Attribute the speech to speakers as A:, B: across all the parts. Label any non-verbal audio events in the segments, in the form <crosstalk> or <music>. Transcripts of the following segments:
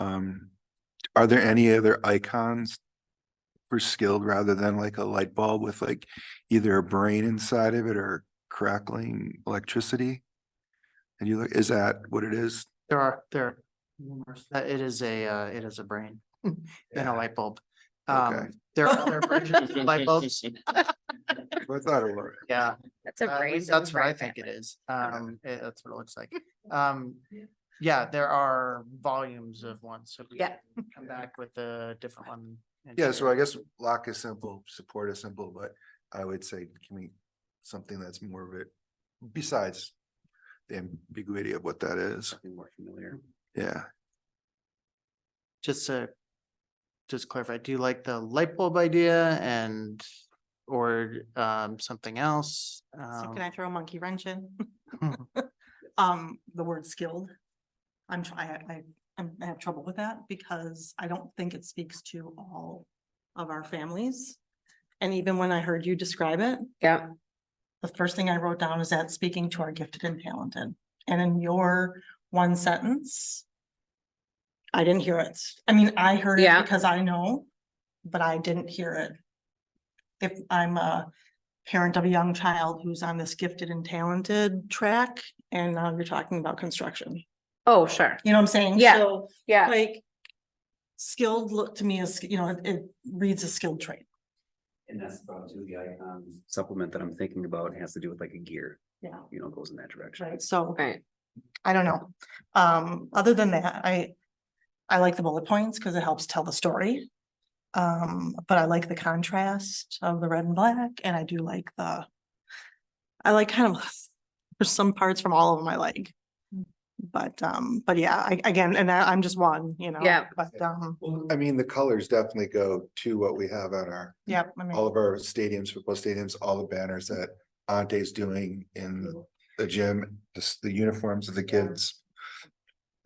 A: Um, are there any other icons for skilled rather than like a light bulb with like either a brain inside of it or crackling electricity? And you look, is that what it is?
B: There are, there. are numerous- That it is a, uh, it is a brain <laughs> and a light bulb.
A: Okay.
B: Um, there are other versions of
A: <laughs>
B: light <laughs> bulbs.
A: I thought it was.
C: <laughs>
B: Yeah,
C: That's
B: uh,
C: a
B: at
C: brain.
B: least that's what I think it is. Um, it- that's what it looks like. Um, yeah, there are volumes of ones, so we
C: Yeah.
B: can come back with a different one. and
A: Yeah, so
B: share.
A: I guess lock is simple, support is simple, but I would say, can we, something that's more of it, besides the ambiguity of what that is,
D: More familiar.
A: yeah.
B: Just to, just clarify, do you like the light bulb idea and, or, um, something else?
E: So
B: Um,
E: can I throw a monkey wrench in? <laughs> Um, the word skilled. I'm trying, I, I'm- I have trouble with that because I don't think it speaks to all of our families. And even when I heard you describe it,
C: Yeah,
E: the first thing I wrote down is that speaking to our gifted and talented. And in your one sentence, I didn't hear it. I mean, I heard it
C: Yeah.
E: because I know, but I didn't hear it. If I'm a parent of a young child who's on this gifted and talented track, and now you're talking about construction,
C: oh, sure,
E: you know what I'm saying?
C: Yeah.
E: So,
C: yeah,
E: Like, skilled look to me as, you know, it- it reads a skilled trait.
D: And that's about two, the icon supplement that I'm thinking about has to do with like a gear,
E: Yeah.
D: you know, goes in that direction.
E: Right, so.
C: right,
E: I don't know. Um, other than that, I, I like the bullet points because it helps tell the story. Um, but I like the contrast of the red and black and I do like the, I like kind of, <laughs> there's some parts from all of them I like. But, um, but yeah, I, again, and I, I'm just one, you know?
C: Yeah.
E: But, um,
A: Well, I mean, the colors definitely go to what we have on our,
E: yeah, I mean.
A: all of our stadiums, football stadiums, all the banners that Ante's doing in
E: Mm-hmm.
A: the gym, just the uniforms of the kids.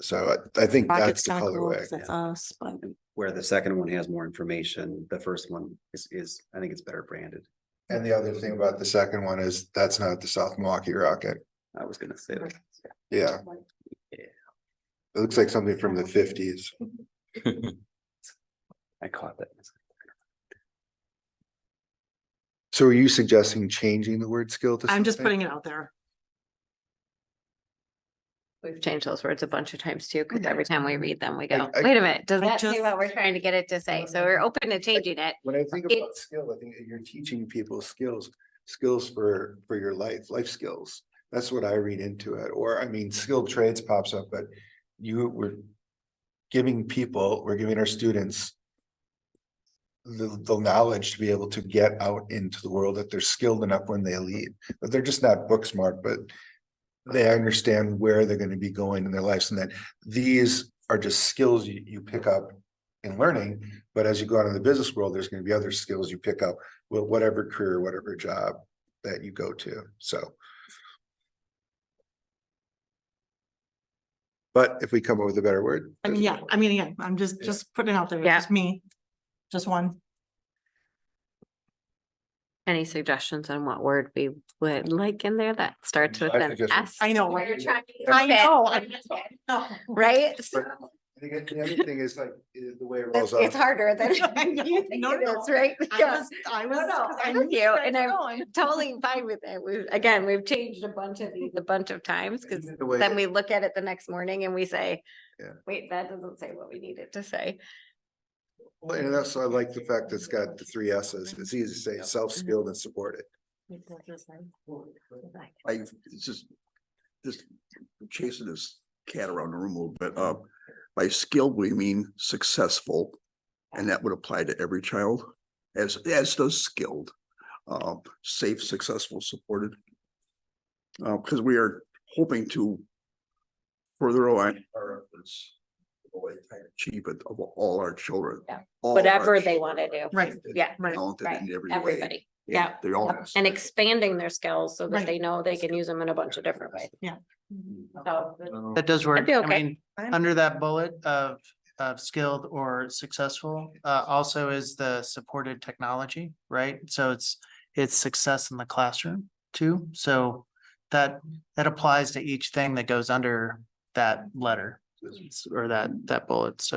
A: So I, I think that's the colorway.
E: That's us, but
D: Where the second one has more information, the first one is, is, I think it's better branded.
A: And the other thing about the second one is that's not the South Milwaukee Rocket.
D: I was gonna say that.
A: Yeah.
D: Yeah.
A: It looks like something from the fifties.
D: <laughs> I caught that.
A: So are you suggesting changing the word skill to?
E: I'm just
A: something?
E: putting it out there.
C: we've changed those words a bunch of times too, because
E: Yeah.
C: every time we read them, we go,
A: I-
C: wait a minute, does
E: I
C: that say
E: just-
C: what we're trying to get it to say? So we're open to changing it.
A: When I think about
C: It's-
A: skill, I think you're teaching people skills, skills for, for your life, life skills. That's what I read into it, or I mean, skilled trades pops up, but you were giving people, we're giving our students the, the knowledge to be able to get out into the world, that they're skilled enough when they leave, that they're just not book smart, but they understand where they're gonna be going in their lives and that these are just skills you, you pick up in learning, but as you go out in the business world, there's gonna be other skills you pick up with whatever career, whatever job that you go to, so. But if we come up with a better word.
E: I mean, yeah, I mean, again, I'm just,
A: Yeah.
E: just putting it out there. It's
C: Yeah.
E: Just me, just one.
C: Any suggestions on what word we would like in there that starts with
A: I
C: an
A: suggest-
C: S?
E: I know.
C: Where you're trying to
E: I
C: fit,
E: know, I <laughs>
C: Oh.
E: know.
C: Right? So
A: I think the other thing is like, is the way it rolls
C: It's
A: off.
C: it's harder than <laughs>
E: <laughs> I know.
C: you think
E: No,
C: it
E: no.
C: is, right?
E: I
C: Yeah.
E: was, I was.
C: No, no,
E: 'cause I
C: I'm
E: knew
C: with you,
E: where
C: and
E: you were
C: I'm
E: going.
C: totally fine with it. We've, again, we've changed a bunch of these a bunch of times, because
A: Even the way
C: then
A: that-
C: we look at it the next morning and we say,
A: Yeah.
C: wait, that doesn't say what we needed to say.
A: Well, And also I like the fact that it's got the three S's. It's easy to say self-skilled and supported.
F: I, it's just, just chasing this cat around the room a little bit. Uh, by skilled, we mean successful. And that would apply to every child as, as does skilled, uh, safe, successful, supported. Uh, because we are hoping to further align our efforts. the way to Achieve it of all our children.
C: Yeah.
F: All our
C: Whatever they want to do.
E: Right,
F: children,
C: Yeah,
E: right.
F: Talented
C: right.
F: in every way.
C: Everybody. Yeah.
F: They all. have
C: And expanding their skills so that
E: Right.
C: they know they can use them in a bunch of different ways.
E: Yeah.
C: So
B: That does work.
C: be
B: I
C: okay.
B: mean,
E: I'm-
B: under that bullet of, of skilled or successful, uh, also is the supported technology, right? So it's, it's success in the classroom too. So that, that applies to each thing that goes under that letter or that, that bullet. So